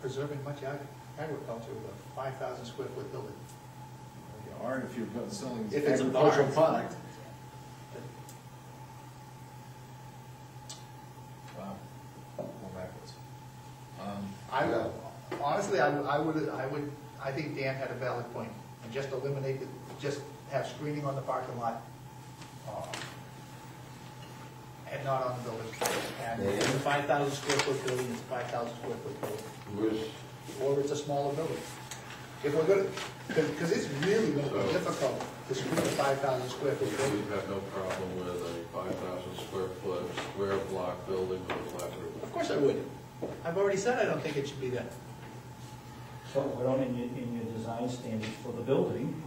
preserving much ag- agriculture with a five thousand square foot building. You are if you're go- selling If it's a agricultural barn. product. Wow, go backwards. Um, I, would- honestly, I would, I would, I would, I think Dan had a valid point, and just eliminate, the just have screening on the parking lot, uh, and not on the building. And if it's a five thousand square foot building, it's a five thousand square foot building, Which, or it's a smaller building. If we're gonna, because it's really gonna be difficult to screen a five thousand square we foot building. have no problem with a five thousand square foot, square block building with a flat Of roof. course I would. I've already said I don't think it should be there. So why don't in your, in your design standards for the building,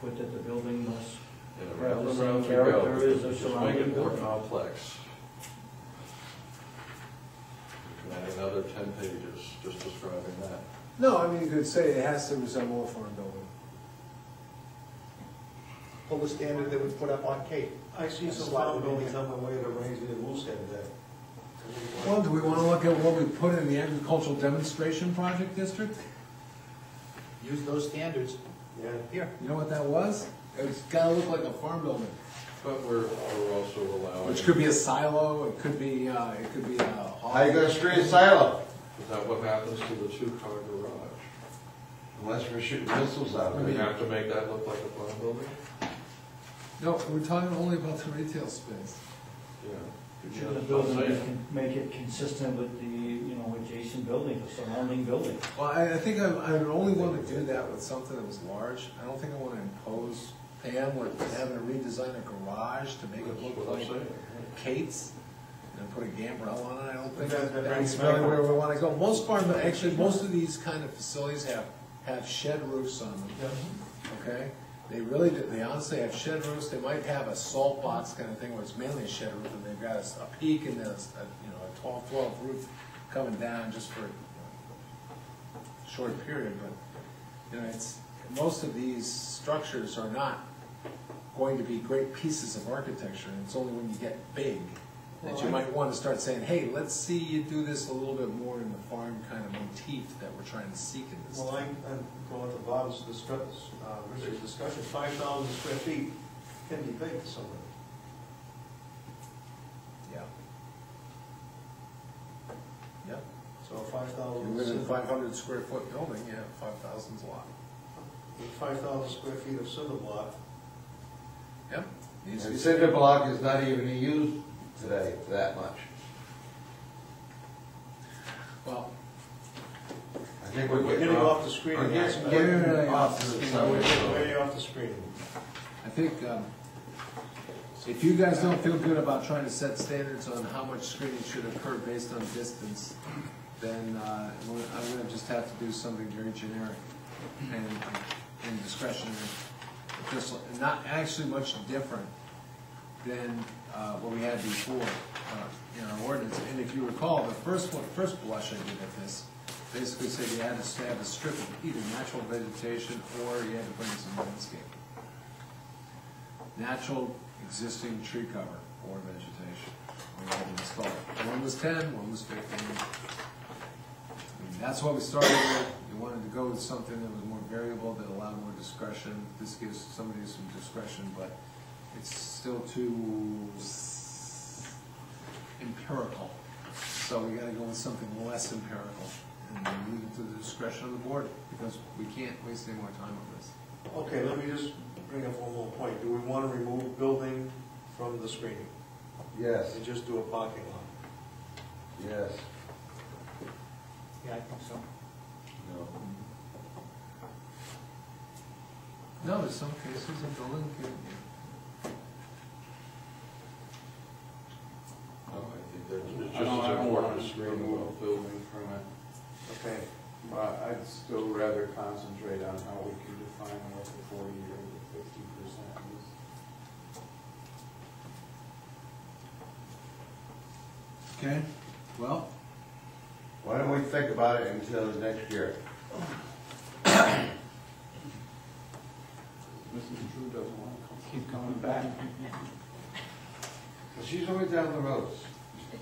put that the building must And Right, around the and same around we character go. as the Just make surrounding it more building. complex. You can Add another ten pages just describing that. No, I mean, you could say it has to resemble a farm building. Pull the standard that we put up on Cape. I see some Slide it farm in buildings there. on my way to Rangeley and Woolstead that. Well, do we want to look at what we put in the agricultural demonstration project district? Use those standards Yeah, here. You know what that was? It's gotta look like a farm building. But we're, we're also allowing. Which could be a silo, it could be, uh, it could be a. hall. How you gonna screen a silo Is that what happens to the two-car garage? unless we're shooting missiles out of We it? have to make that look like a farm building? No, we're talking only about the retail space. Yeah. Should the building be con- make it consistent with the, you know, adjacent building, the surrounding building? Well, I, I think I, I would only want to do that with something that was large. I don't think I want to impose Pam with having to redesign a garage to make it That's look what I'm like saying. Kate's and put a gambrel on it. I don't think That- that that's brings really back- where we want to go. Most farm, actually, most of these kind of facilities have, have shed roofs on them. okay? They really, do- they honestly have shed roofs, they might have a salt box kind of thing where it's mainly a shed roof, and they've got a s- a peak and then a, s- a, you know, a twelve, twelve roof coming down just for you know, a short period, but, you know, it's, most of these structures are not going to be great pieces of architecture, and it's only when you get big that you might wanna start saying, hey, let's see you do this a little bit more in the farm kind of motif that we're trying to seek in this. Well, I, I'm going with the bottom's discuss, uh, Richard's discussion, five thousand square feet can be big for someone. Yeah. Yep. So five You live in a thousand, five hundred square foot building, yeah, five thousand's a lot. five thousand square feet of cinder block, Yep. Needs to And be- cinder block is not even used today that much. Well, I think We're getting off the screen. We're getting- Yeah, getting yeah, off yeah. the we're subject. way off the screen. I think, um, if you guys don't feel good about trying to set standards on how much screening should occur based on distance, then, uh, I'm gonna- I'm gonna just have to do something very generic and, and discretionary. Just like- not actually much different than, uh, what we had before, uh, in our ordinance. And if you recall, the first one, first blush I did at this, basically said you had to have a strip of either natural vegetation or you had to bring some landscape natural existing tree cover or vegetation. We had to install it. One was ten, one was fifteen. I mean, That's what we started with. We wanted to go with something that was more variable, that allowed more discretion. This gives somebody some discretion, but it's still too s- empirical. So we gotta go with something less empirical and then leave it to the discretion of the board, because we can't waste any more time on this. Okay, let me just bring up one more point. Do we want to remove building from the screening Yes, and just do a parking lot? yes. Yeah, I think so. No. No, in some cases, a building can, No, I think that's, it's I don't, just I as don't important want as to screening. remove a building from it, Okay, but I'd still rather concentrate on how we can define what the forty or the fifty percent is. Okay, well, Why don't we think about it until next year? Mrs. Drew doesn't want to keep coming back. She's always down the roads.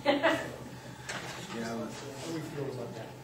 yeah, How do we feel about that?